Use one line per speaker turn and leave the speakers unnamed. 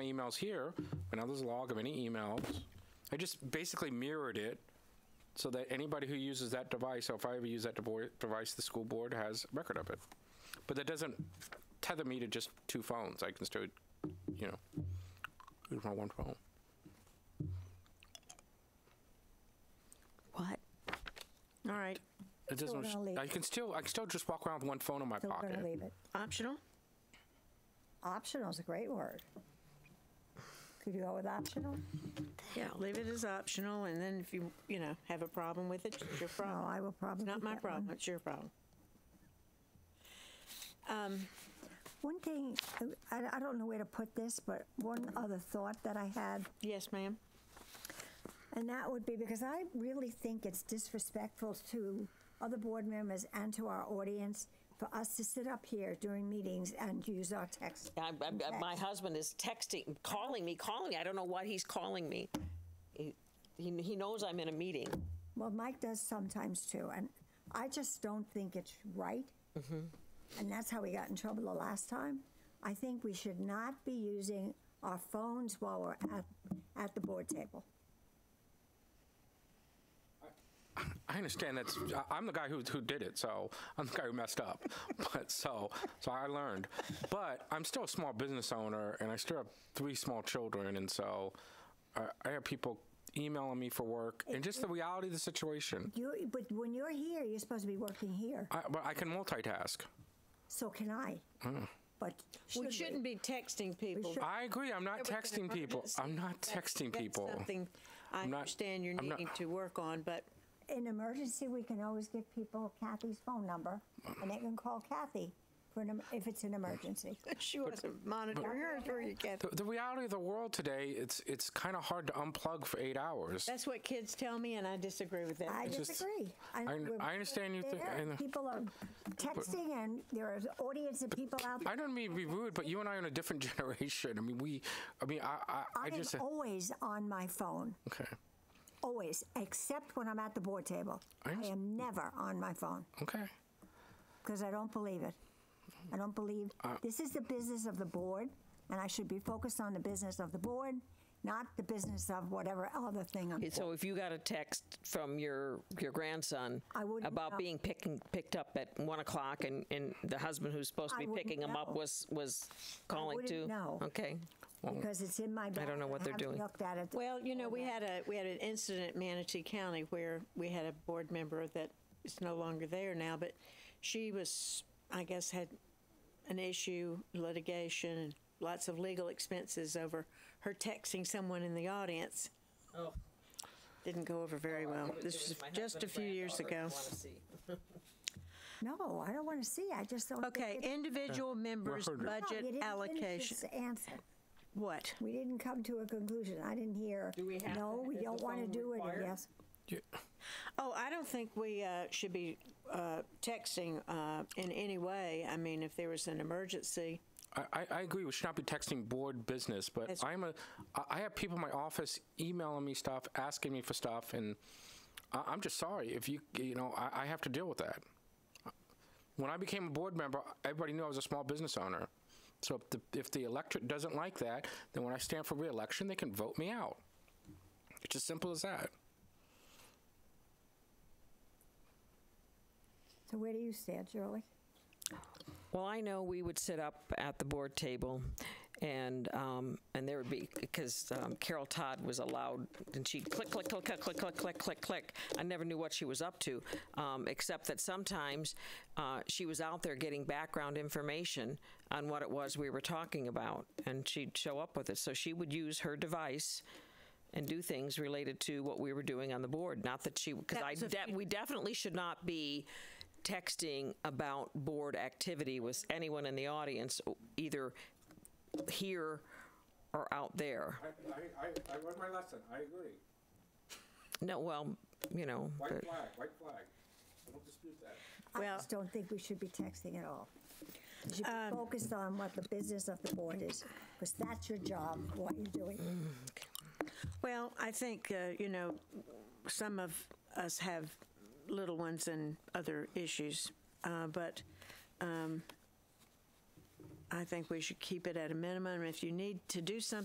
emails here, but now there's a log of any emails. I just basically mirrored it so that anybody who uses that device, or if I ever use that devoi- device, the school board has record of it. But that doesn't tether me to just two phones. I can still, you know, use my one phone.
What? All right,
It
we're
doesn't.
gonna leave
I can still. I can still just walk around with one phone in my
So we're
pocket.
going to leave it.
optional?
Optional is a great word. Could you go with optional?
Yeah, leave it as optional, and then if you, you know, have a problem with it, it's your
No,
problem.
Oh, I will probably.
It's not
keep
my
that one.
problem, it's your problem. Um,
One thing, I, I don't know where to put this, but one other thought that I had,
yes, ma'am.
and that would be because I really think it's disrespectful to other board members and to our audience for us to sit up here during meetings and use our text.
I, I- I- my husband is texting, calling me, calling me. I don't know what he's calling me. He, he, he knows I'm in a meeting.
Well, Mike does sometimes too, and I just don't think it's right.
Mm-hmm.
And that's how we got in trouble the last time. I think we should not be using our phones while we're at, at the board table.
I understand that's. I- I'm the guy who who did it, so I'm the guy who messed up. But so so I learned. But I'm still a small business owner, and I still have three small children, and so I, I have people emailing me for work, and just the reality of the situation.
You, but when you're here, you're supposed to be working here.
I, but I can multitask.
So can I.
Mm.
But should
We shouldn't be texting people.
should-
I agree. I'm not texting people. I'm not texting
That's
people.
something I
I'm not-
understand you're
I'm not-
needing to work on, but
In emergency, we can always give people Kathy's phone number, and they can call Kathy for an, em- if it's an emergency.
she wasn't monitoring hers, were you, Kathy?
The, the reality of the world today, it's it's kind of hard to unplug for eight hours.
That's what kids tell me, and I disagree with that.
I
It's just-
disagree.
I-
we're-
I understand you think-
there.
I know.
People are texting, and there are audience of people out
I
there.
don't mean to be rude, but you and I are in a different generation. I mean, we. I mean, I. I, I,
I am
just.
always on my phone,
Okay.
always, except when I'm at the board table.
I
I
understand.
am never on my phone.
Okay.
because I don't believe it. I don't believe
Uh,
this is the business of the board, and I should be focused on the business of the board, not the business of whatever other thing. I'm,
So if you got a text from your, your grandson
I wouldn't
about
know.
being picking, picked up at 1 o'clock and, and the husband who's supposed to
I
be
wouldn't
picking him up
know.
was, was calling
wouldn't
too?
know.
Okay.
because it's in my. Bag.
know what they're
haven't
doing.
Looked at it.
Well, you know, we had a, we had an incident in Manatee County where we had a board member that is no longer there now, but she was, I guess, had an issue, litigation, and lots of legal expenses over her texting someone in the audience. Oh. Didn't go over very well. This was just a few years ago.
no, I don't want to see. I just don't. think
Okay,
it's-
individual members'
heard it.
No, you
budget
didn't finish
allocation.
this Answer.
What?
We didn't come to a conclusion. I didn't hear. Do we have no, we don't want to do it. Yes.
Oh, I don't think we uh, should be uh, texting uh, in any way. I mean, if there was an emergency,
I, I, I agree. We should not be texting board business, but
That's-
I'm a. I I have people in my office emailing me stuff, asking me for stuff, and I, I'm just sorry if you you know I, I have to deal with that. When I became a board member, everybody knew I was a small business owner. So if the, if the electorate doesn't like that, then when I stand for reelection, they can vote me out. It's as simple as that.
So where do you stand, Shirley?
Well, I know we would sit up at the board table, and um, and there would be because um, Carol Todd was allowed, and she'd click, click, click, click, click, click, click, click, click. I never knew what she was up to, um, except that sometimes uh, she was out there getting background information on what it was we were talking about, and she'd show up with it. So she would use her device. And do things related to what we were doing on the board. Not that she, because I, de- we definitely should not be texting about board activity with anyone in the audience, o- either here or out there.
I, I, I learned my lesson. I agree.
No, well, you know, but-
flag, white flag. I don't dispute that.
I
Well-
just don't think we should be texting at all. You should be focused on what the business of the board is, because that's your job, what you're doing.
well, I think, uh, you know, some of us have little ones and other issues, uh, but um, I think we should keep it at a minimum. If you need to do something,